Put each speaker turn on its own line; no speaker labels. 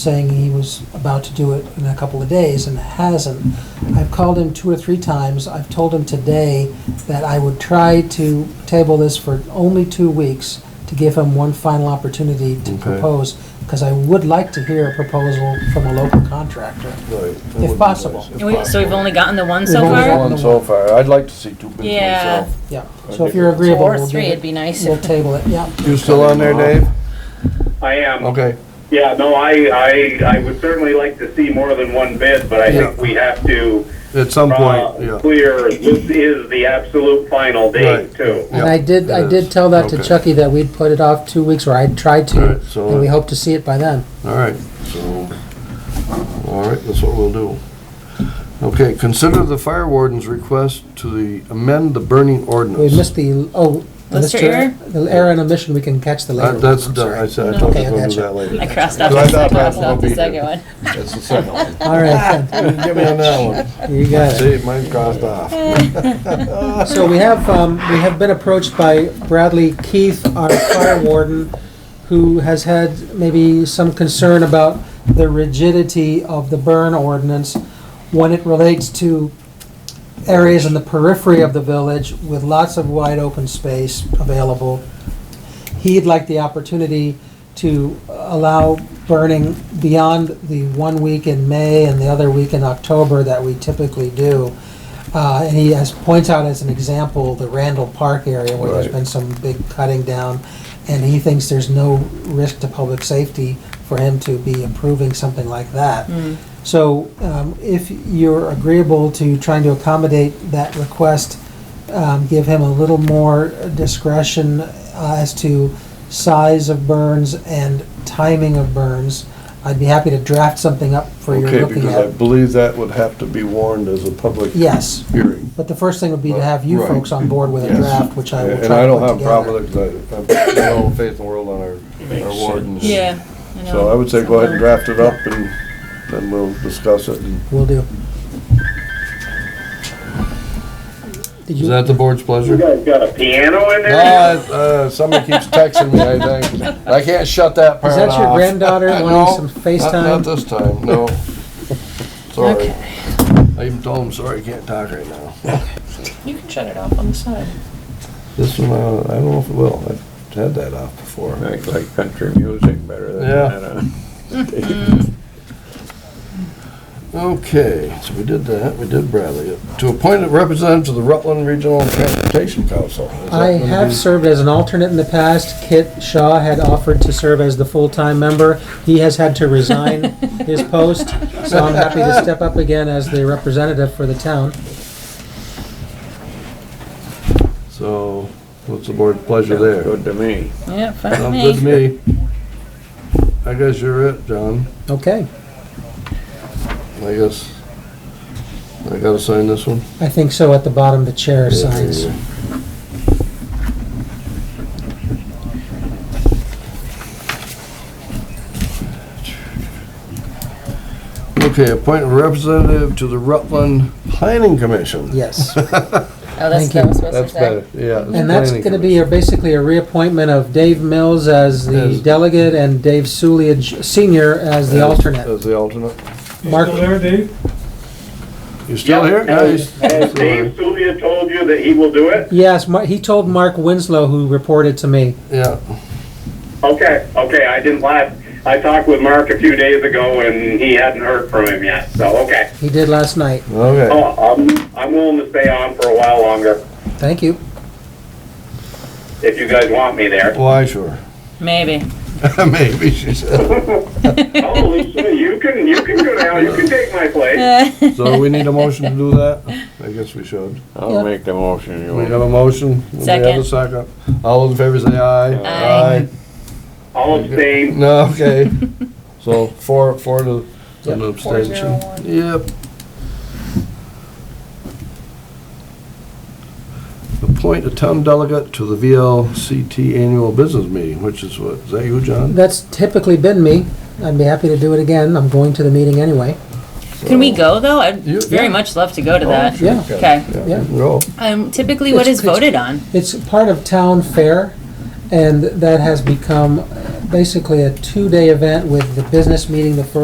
saying he was about to do it in a couple of days and hasn't. I've called him two or three times. I've told him today that I would try to table this for only two weeks to give him one final opportunity to
Okay.
propose, because I would like to hear a proposal from a local contractor.
Right.
If possible.
And we- So we've only gotten the one
We've
so
only
far?
got-
One so far. I'd like to see two bids
Yeah.
myself.
Yeah, so if you're agreeable,
Or
we'll do
three, it'd
it.
be nice.
We'll table it, yeah.
You still on there, Dave?
I am.
Okay.
Yeah, no, I, I, I would certainly like to see more than one bid, but I think
Yeah.
we have to,
At some
uh,
point, yeah.
clear, this is the absolute final date
Right.
too.
And I did,
it
I
is.
did tell that to
Okay.
Chucky that we'd put it off two weeks, or I'd tried to,
All right, so- uh,
and we hope to see it by then.
All right, so, all right, that's what we'll do. Okay, consider the fire warden's request to the, amend the burning
We
ordinance.
missed the, oh.
What's your
Mr.
error?
The error and omission, we can catch the
Uh,
later. one,
That's
I'm
done. I
sorry.
said, I told you
Okay, I
we'll do
gotcha.
that
I
later.
crossed off,
So I
the-
thought
I
that
crossed
would
off the
be
second
good.
one.
That's the second one.
All right, then.
Give me on that one.
you got it.
See, mine crossed off.
So we have, um, we have been approached by Bradley Keith, our fire warden, who has had maybe some concern about the rigidity of the burn ordinance when it relates to areas in the periphery of the village with lots of wide open space available. He'd like the opportunity to allow burning beyond the one week in May and the other week in October that we typically do. Uh, and he has, points out as an example, the Randall Park area where there's
Right.
been some big cutting down. And he thinks there's no risk to public safety for him to be approving something like that. So um, if you're agreeable to trying to accommodate that request, um, give him a little more discretion uh, as to size of burns and timing of burns, I'd be happy to draft something up for your
Okay,
looking
because I
at.
believe that would have to be warned as a public
Yes,
hearing.
but the first thing would be to have you
Right.
folks on board with a
Yes.
draft, which I will
And
try
I
to
don't
put
have a problem
together.
with it, 'cause I I have all the faith in the world on our, our wardens.
Yeah.
So I would say go ahead and draft it up and then we'll discuss it. and-
Will do. Did
Is
you-
that the board's pleasure?
You
No,
guys got a piano in there?
it's, uh, somebody keeps texting me, I think. I can't shut that part
Is
off.
that your granddaughter
No,
wanting some
Not- Not
FaceTime?
this time, no. Sorry.
Okay.
I even told him, sorry, I can't talk right now.
You can shut it off on the side.
This one, uh, I don't know if it will. I've had that off before.
I like country music better than
Yeah.
that. uh,
Okay, so we did that, we did Bradley. To appoint a representative to the Rutland Regional Transportation Council. Is that
I
gonna
have
be-
served as an alternate in the past. Kit Shaw had offered to serve as the full-time member. He has had to resign his post, so I'm happy to step up again as the representative for the town.
So, what's the board's pleasure
Sounds
there?
good to me.
Yeah, fine
Sounds good
with
to
me.
me. I guess you're it, John.
Okay,
I guess, I gotta sign this one?
I think so at the bottom, the chair signs.
Okay, appoint a representative to the Rutland Planning Commission.
Yes.
Oh, that's,
Thank you.
that was supposed to
That's
say.
better, yeah.
And that's
Planning
gonna be a- basically a reappointment of Dave Mills as the
As-
delegate and Dave Suliage Senior as the
As-
alternate.
As the alternate.
Mark,
You still here? Yeah,
Has
he's-
has
he's still
Dave
here.
Sulia told you that he will do it?
yes, Mar- he told Mark Winslow, who reported to me.
Yeah,
Okay, okay, I didn't laugh. I talked with Mark a few days ago and he hadn't heard from him yet, so, okay.
He did last night.
okay.
Oh, I'm, I'm willing to stay on for a while longer,
Thank you.
if you guys want me there.
Why, sure.
Maybe.
Maybe, she said.
Oh, Lisa, you can, you can go now, you can take my place.
So we need a motion to do that? I guess we should.
Yeah.
I'll make the motion. You
We
want.
have a motion. We have a
Second.
second. All those in favor say aye.
Aye.
I'll abstain.
No, okay. So four, four to, to an
Four zero
abstention.
one.
Yep. Appoint a town delegate to the VLCT annual business meeting, which is what, is that you, John?
That's typically been me. I'd be happy to do it again. I'm going to the meeting anyway.
Can we go, though? I'd
You-
very
yeah. Oh,
much love to go to that.
sure. Yeah.
Okay.
Yeah,
Yeah.
go.
Um, typically, what
It's-
is
it's-
voted on?
It's part of town fair, And that has become basically a two-day event with the business meeting the first